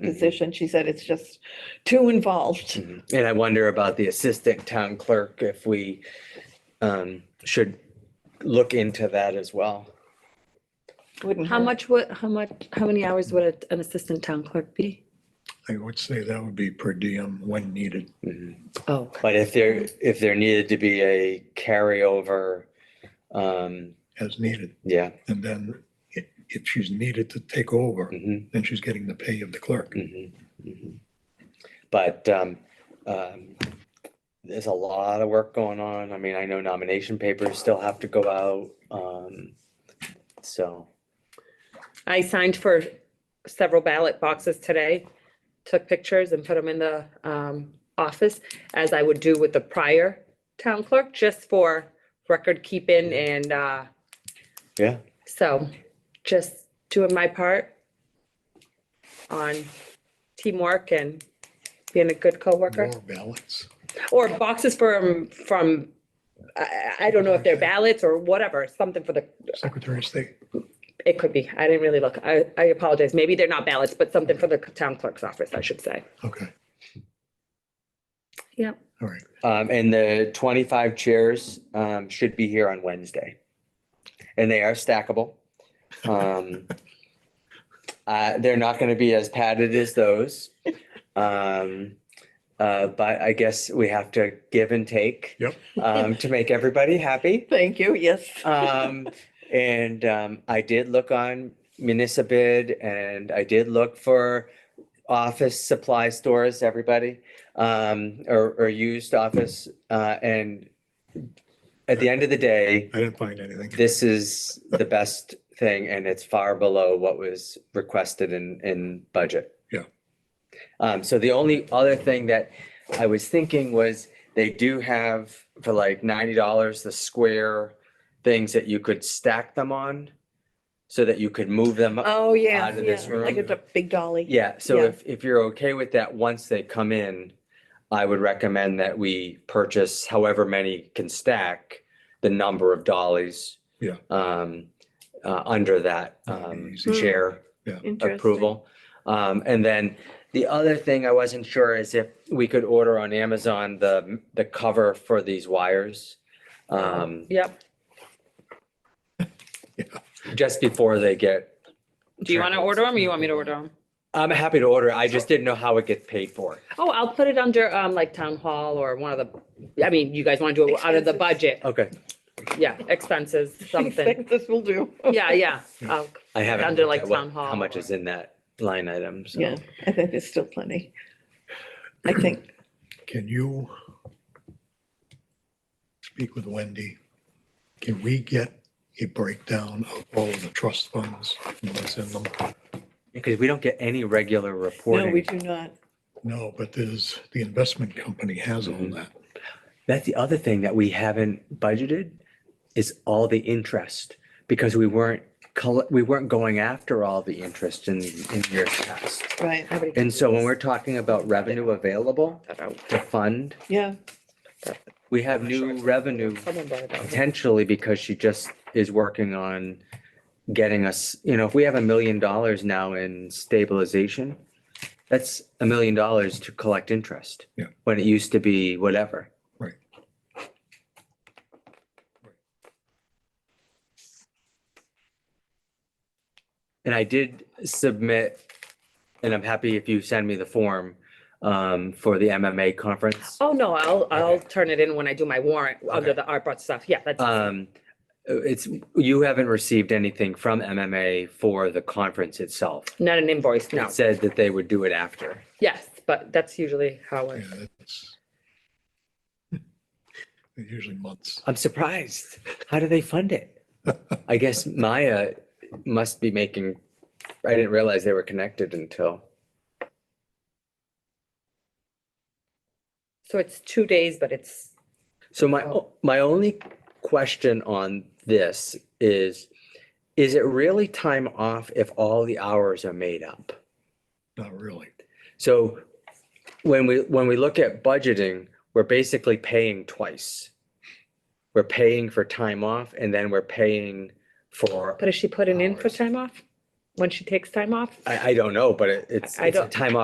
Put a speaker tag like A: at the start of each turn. A: Mm-hmm.
B: position. She said it's just too involved.
A: Mhm. And I wonder about the assistant town clerk, if we um should look into that as well. Mm-hmm.
B: Wouldn't
C: How
B: hurt.
C: much would, how much, how many hours would a- an assistant town clerk be?
D: I would say that would be per diem when needed.
A: Mhm.
C: Oh,
A: But if there, if there needed to be a carryover, um,
D: as needed.
A: yeah.
D: And then i- if she's needed to take over,
A: mhm,
D: then she's getting the pay of the clerk.
A: mhm, mhm. But um, um, there's a lot of work going on. I mean, I know nomination papers still have to go out. Um, so,
C: I signed for several ballot boxes today, took pictures and put them in the um, office, as I would do with the prior town clerk, just for record keeping and uh,
A: yeah.
C: so just doing my part on teamwork and being a good coworker.
D: More balance.
C: Or boxes from, from, I, I I don't know if they're ballots or whatever, something for the
D: Secretary of State,
C: It could be. I didn't really look. I, I apologize. Maybe they're not ballots, but something for the town clerk's office, I should say.
D: okay.
C: Yep.
D: All right,
A: Um, and the twenty-five chairs, um, should be here on Wednesday. And they are stackable. Um, uh, they're not gonna be as padded as those. Um, uh, but I guess we have to give and take.
D: Yep.
A: Um, to make everybody happy.
B: Thank you, yes.
A: Um, and, um, I did look on Municipid and I did look for office supply stores, everybody, um, or, or used office, uh, and at the end of the day,
D: I didn't find anything.
A: this is the best thing and it's far below what was requested in, in budget.
D: Yeah.
A: Um, so the only other thing that I was thinking was they do have for like ninety dollars, the square things that you could stack them on so that you could move them up.
B: Oh, yeah.
A: Out of this
B: yeah, Like
A: room.
B: it's a big dolly.
A: Yeah, so
B: Yeah.
A: if, if you're okay with that, once they come in, I would recommend that we purchase however many can stack the number of dollies.
D: Yeah.
A: Um, uh, under that,
D: That'd be
A: um,
D: easy.
A: chair
B: Interesting.
A: approval. Um, and then the other thing I wasn't sure is if we could order on Amazon the, the cover for these wires. Um,
C: Yep.
A: just before they get,
C: Do you want to
A: Sure.
C: order them or you want me to order them?
A: I'm happy to order. I just didn't know how it gets paid for.
C: Oh, I'll put it under, um, like town hall or one of the, I mean, you guys want to do it out of the
B: Expenses.
C: budget?
A: Okay,
C: Yeah, expenses, something.
B: This will do.
C: Yeah, yeah. I'll-
A: I haven't.
C: Under,
A: looked
C: like,
A: at what-
C: town
A: How
C: hall
A: much
C: or-
A: is in that line item? so.
B: Yeah, I think there's still plenty. I think,
D: Can you speak with Wendy? Can we get a breakdown of all of the trust funds and what's in them?
A: Because we don't get any regular
B: no, we
A: reporting.
B: do not.
D: No, but there's, the investment company has all that.
A: That's the other thing that we haven't budgeted is all the interest because we weren't, coll- we weren't going after all the interest in, in years past.
B: Right,
C: everybody can
A: And so when
C: use
A: we're talking about revenue available
C: that out.
A: to fund,
B: yeah.
A: we have new revenue
C: Someone brought it up.
A: potentially because she just is working on getting us, you know, if we have a million dollars now in stabilization, that's a million dollars to collect interest.
D: Yeah.
A: When it used to be whatever.
D: Right.
A: And I did submit, and I'm happy if you send me the form um, for the MMA conference.
C: Oh, no, I'll, I'll
A: Okay.
C: turn it in when I do my warrant under
A: Okay.
C: the art brought stuff. Yeah, that's,
A: Um, it's, you haven't received anything from MMA for the conference itself.
C: not an invoice, no.
A: It said that they would do it after.
C: Yes, but that's usually how
D: Yeah,
C: I,
D: it's they're usually months.
A: I'm surprised. How do they fund it? I guess Maya must be making, I didn't realize they were connected until,
C: so it's two days, but it's
A: so my, o- my only question on this is, is it really time off if all the hours are made up?
D: Not really.
A: So when we, when we look at budgeting, we're basically paying twice. We're paying for time off and then we're paying for,
C: But has she put it in for
A: Hours.
C: time off?
A: when she takes time off?
C: I, I don't know, but it- it's,
A: I
C: it's a
A: don't-
C: time off